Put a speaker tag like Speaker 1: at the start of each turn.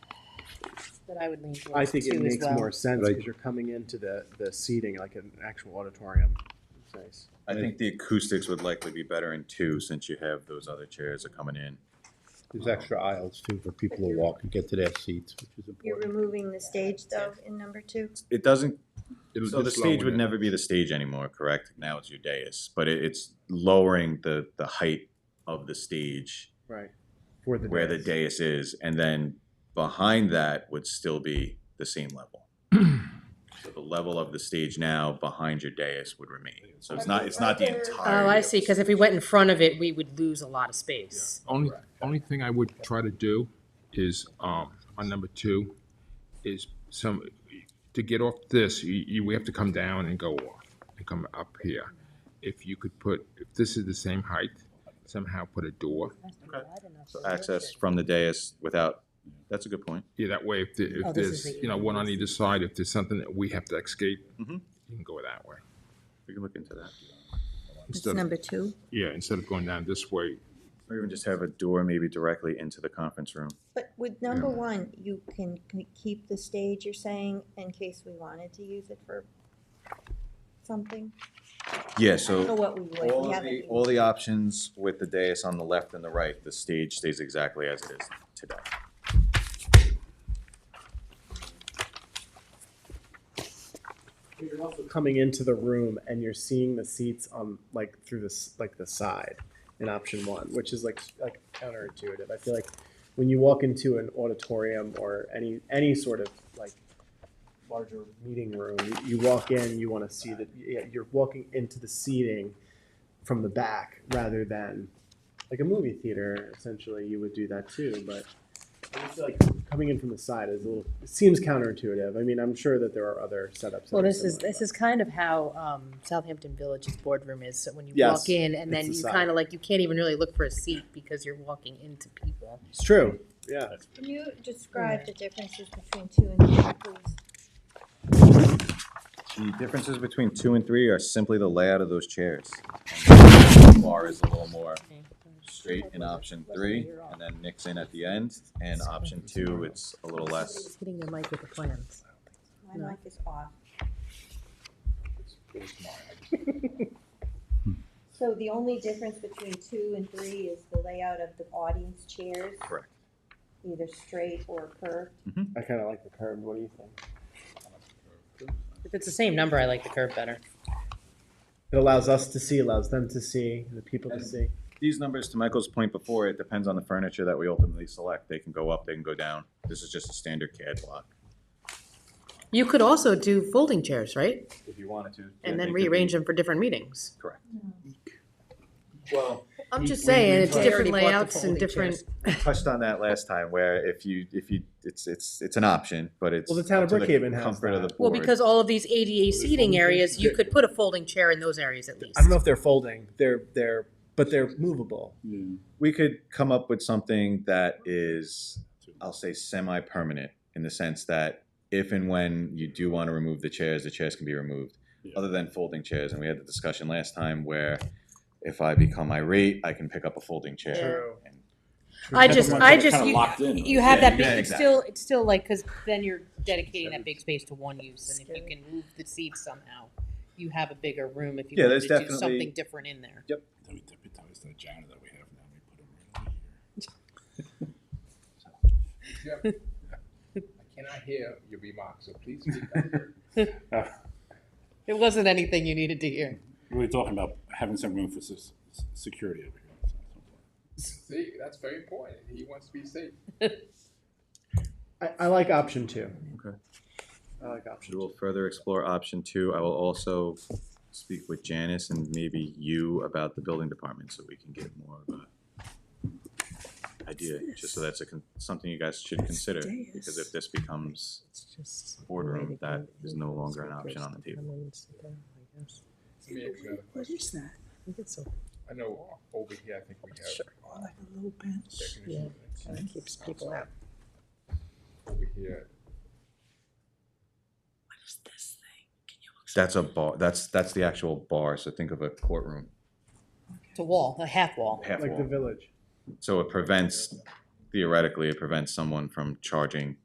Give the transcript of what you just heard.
Speaker 1: what I would lean towards
Speaker 2: I think
Speaker 1: too,
Speaker 2: it
Speaker 1: as
Speaker 2: makes
Speaker 1: well.
Speaker 2: more sense
Speaker 3: Right.
Speaker 2: because you're coming into the, the seating like an actual auditorium. It's nice.
Speaker 4: I think the acoustics would likely be better in two, since you have those other chairs that are coming in.
Speaker 3: There's extra aisles too for people to walk and get to their seats, which is
Speaker 5: You're
Speaker 3: important.
Speaker 5: removing the stage though in number two?
Speaker 4: It doesn't,
Speaker 3: It was
Speaker 4: so the
Speaker 3: just
Speaker 4: stage
Speaker 3: lowering
Speaker 4: would
Speaker 3: it.
Speaker 4: never be the stage anymore, correct? Now it's your dais, but it, it's lowering the, the height of the stage
Speaker 2: Right. For the
Speaker 4: where the
Speaker 2: dais.
Speaker 4: dais is, and then behind that would still be the same level. So the level of the stage now behind your dais would remain, so it's not, it's not the entire.
Speaker 6: Oh, I see, because if we went in front of it, we would lose a lot of space.
Speaker 7: Only, only thing I would try to do is, um, on number two, is some, to get off this, you, you, we have to come down and go off, and come up here. If you could put, if this is the same height, somehow put a door,
Speaker 4: Access from the dais without, that's a good point.
Speaker 7: yeah, that way if, the-
Speaker 6: Oh,
Speaker 7: if
Speaker 6: this is
Speaker 7: there's,
Speaker 6: the
Speaker 7: you know, one on either side, if there's something that we have to escape, you
Speaker 4: Mhm.
Speaker 7: can go that way.
Speaker 4: We can look into that.
Speaker 5: It's
Speaker 7: Instead of-
Speaker 5: number two.
Speaker 7: Yeah, instead of going down this way,
Speaker 4: Or even just have a door maybe directly into the conference room.
Speaker 5: But with number one, you can c- keep the stage, you're saying, in case we wanted to use it for something?
Speaker 4: Yeah,
Speaker 5: I don't know
Speaker 4: so
Speaker 5: what we would,
Speaker 4: all
Speaker 5: we
Speaker 4: of
Speaker 5: haven't.
Speaker 4: the,
Speaker 5: even-
Speaker 4: all the options with the dais on the left and the right, the stage stays exactly as it is today.
Speaker 2: You're also coming into the room and you're seeing the seats on like through this like the side in option one, which is like like counterintuitive. I feel like when you walk into an auditorium or any any sort of like larger meeting room, you, you walk in, you want to see that yeah, you're walking into the seating from the back rather than like a movie theater. Essentially, you would do that too, but. I just feel like coming in from the side is a little it seems counterintuitive. I mean, I'm sure that there are other setups. that
Speaker 6: Well,
Speaker 2: are
Speaker 6: this is,
Speaker 2: similar,
Speaker 6: this
Speaker 2: but-
Speaker 6: is kind of how um, Southampton Village's boardroom is, so when you
Speaker 2: Yes,
Speaker 6: walk in, and then
Speaker 2: it's
Speaker 6: you
Speaker 2: the
Speaker 6: kind of like, you can't even really look for a seat because you're walking into people.
Speaker 2: It's true. Yeah.
Speaker 5: Can you describe the differences between two and three, please?
Speaker 4: The differences between two and three are simply the layout of those chairs. Bar is a little more straight in option three, and then nicks in at the end, and option two, it's a little less.
Speaker 6: Somebody's hitting their mic with the plans. No.
Speaker 5: My mic is off. So the only difference between two and three is the layout of the audience chairs,
Speaker 4: Correct.
Speaker 5: either straight or curved.
Speaker 2: I kind of like the curve. What do you think?
Speaker 6: If it's the same number, I like the curve better.
Speaker 2: It allows us to see, allows them to see, the people to see.
Speaker 4: These numbers, to Michael's point before, it depends on the furniture that we ultimately select. They can go up, they can go down. This is just a standard CAD block.
Speaker 6: You could also do folding chairs, right?
Speaker 4: If you wanted to.
Speaker 6: And then rearrange them for different meetings.
Speaker 4: Correct. Well,
Speaker 6: I'm
Speaker 4: We-
Speaker 6: just
Speaker 4: we-
Speaker 6: saying,
Speaker 4: we
Speaker 6: it's
Speaker 4: tried-
Speaker 6: different different layouts layouts and
Speaker 4: folding
Speaker 6: different,
Speaker 4: we touched on that last time where if you, if you, it's, it's, it's an option, but it's.
Speaker 2: Well, the town of
Speaker 4: up to
Speaker 2: Brookhaven has
Speaker 4: Comfort of the
Speaker 2: that.
Speaker 4: board.
Speaker 6: well, because all of these ADA seating areas, you could put a folding chair in those areas at least.
Speaker 2: I don't know if they're folding. They're they're but they're movable.
Speaker 4: We could come up with something that is, I'll say semi-permanent in the sense that if and when you do want to remove the chairs, the chairs can be removed. Other than folding chairs, and we had the discussion last time where if I become irate, I can pick up a folding chair. And
Speaker 6: I just, I just,
Speaker 8: Kinda
Speaker 6: you,
Speaker 8: locked in,
Speaker 6: you
Speaker 8: right?
Speaker 6: have
Speaker 4: Yeah,
Speaker 6: that
Speaker 4: yeah,
Speaker 6: big, it's
Speaker 4: exactly.
Speaker 6: still, it's still like, because then you're dedicating that big space to one use, and if you can move the seats somehow, you have a bigger room if you
Speaker 4: Yeah,
Speaker 6: wanted
Speaker 4: there's
Speaker 6: to do
Speaker 4: definitely-
Speaker 6: something different in there.
Speaker 8: Then we dip it down, it's the agenda that we have now, we put it right over here.
Speaker 7: I cannot hear your remarks, so please speak up.
Speaker 6: It wasn't anything you needed to hear.
Speaker 8: We We're talking about having some room for s- s- security over here.
Speaker 7: See, that's very important. He wants to be safe.
Speaker 2: I, I like option two.
Speaker 4: Okay.
Speaker 2: I like option
Speaker 4: We will
Speaker 2: two.
Speaker 4: further explore option two. I will also speak with Janice and maybe you about the building department so we can get more of a idea, just so that's a, con- something you guys should consider, because if this becomes boardroom, that is no longer an option on the table.
Speaker 9: What is that?
Speaker 7: I know over here, I think we have. um,
Speaker 9: Like a little bench?
Speaker 7: air conditioning
Speaker 9: It keeps people out.
Speaker 7: Over here,
Speaker 9: What is this thing? Can you
Speaker 4: That's a bar, that's, that's the actual bar, so think of a courtroom,
Speaker 6: It's a wall, a half wall.
Speaker 4: half
Speaker 2: Like the
Speaker 4: wall.
Speaker 2: village.
Speaker 4: So it prevents, theoretically, it prevents someone from charging